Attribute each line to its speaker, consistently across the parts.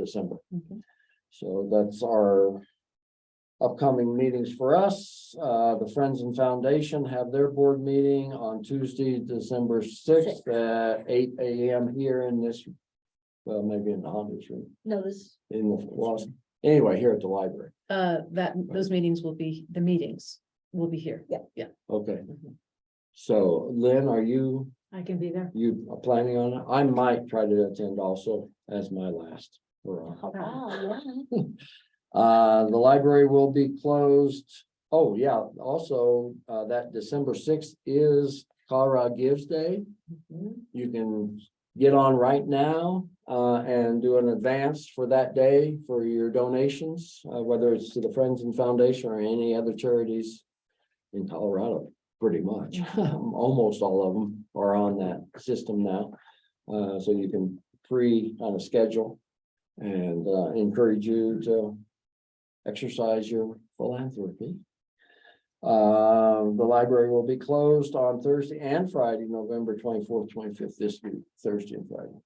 Speaker 1: December.
Speaker 2: Mhm.
Speaker 1: So that's our upcoming meetings for us. Uh, the Friends and Foundation have their board meeting on Tuesday, December sixth,
Speaker 2: Sixth.
Speaker 1: at eight AM here in this, well, maybe in the Honda's room,
Speaker 2: No, this,
Speaker 1: in the, well, anyway, here at the library.
Speaker 2: uh, that, those meetings will be, the meetings will be here. Yeah. Yeah.
Speaker 1: Okay,
Speaker 2: Mhm.
Speaker 1: so Lynn, are you
Speaker 2: I can be there.
Speaker 1: You are planning on it? I might try to attend also as my last. hurrah. Uh, the library will be closed. Oh, yeah, also, uh, that December sixth is Colorado Gives Day.
Speaker 2: Mhm.
Speaker 1: You can get on right now, uh, and do an advance for that day for your donations, uh, whether it's to the Friends and Foundation or any other charities in Colorado, pretty much. Um, Almost all of them are on that system now. Uh, so you can pre on a schedule and, uh, encourage you to exercise your philanthropy. Uh, the library will be closed on Thursday and Friday, November twenty-fourth, twenty-fifth, this week, Thursday and Friday.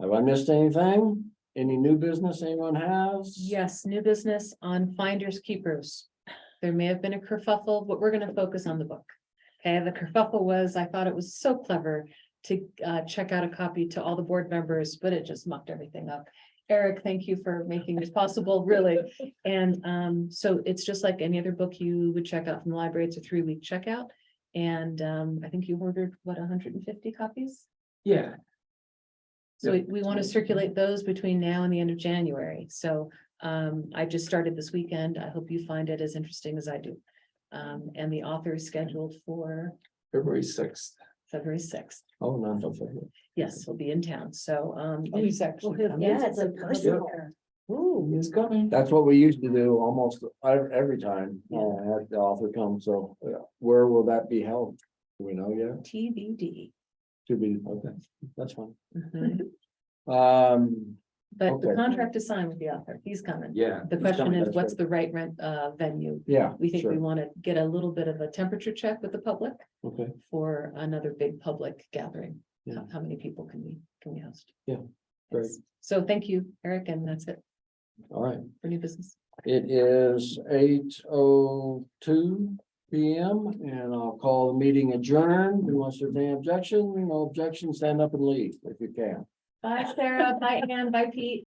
Speaker 1: Have I missed anything? Any new business anyone has?
Speaker 2: Yes, new business on finders keepers. There may have been a kerfuffle, but we're gonna focus on the book. Okay, the kerfuffle was, I thought it was so clever to uh check out a copy to all the board members, but it just mucked everything up. Eric, thank you for making this possible, really. And um, so it's just like any other book you would check out from the library. It's a three-week checkout. And um, I think you ordered, what, hundred and fifty copies?
Speaker 3: Yeah,
Speaker 2: So we, we want to circulate those between now and the end of January. So um, I just started this weekend. I hope you find it as interesting as I do. Um, and the author is scheduled for
Speaker 3: February sixth.
Speaker 2: February sixth.
Speaker 1: Oh, no, don't forget.
Speaker 2: Yes, he'll be in town. So um.
Speaker 3: Oh, he's actually
Speaker 2: we'll have-
Speaker 3: coming.
Speaker 2: Yeah, it's a personal.
Speaker 3: Ooh, he's coming.
Speaker 1: That's what we used to do almost ev- every time, uh, have the author come, so uh, where will that be held? Do we know yet?
Speaker 2: TBD.
Speaker 1: To be, okay, that's fine.
Speaker 2: Mhm.
Speaker 1: Um,
Speaker 2: But the
Speaker 1: Okay.
Speaker 2: contract is signed with the author. He's coming.
Speaker 3: Yeah.
Speaker 2: The
Speaker 1: He's
Speaker 2: question
Speaker 1: coming,
Speaker 2: is,
Speaker 1: that's
Speaker 2: what's
Speaker 1: right.
Speaker 2: the right rent uh venue?
Speaker 1: yeah.
Speaker 2: We think we
Speaker 1: sure.
Speaker 2: want to get a little bit of a temperature check with the public
Speaker 1: Okay,
Speaker 2: for another big public gathering.
Speaker 1: Yeah.
Speaker 2: How- How many people can we, can we host?
Speaker 1: Yeah, great.
Speaker 2: Yes. So thank you, Eric, and that's it
Speaker 1: all right.
Speaker 2: for new business.
Speaker 1: It is eight oh two P M and I'll call the meeting adjourned. Who wants to have any objection? No objection, stand up and leave if you can.
Speaker 2: Bye, Sarah. Bye, Ann. Bye, Pete.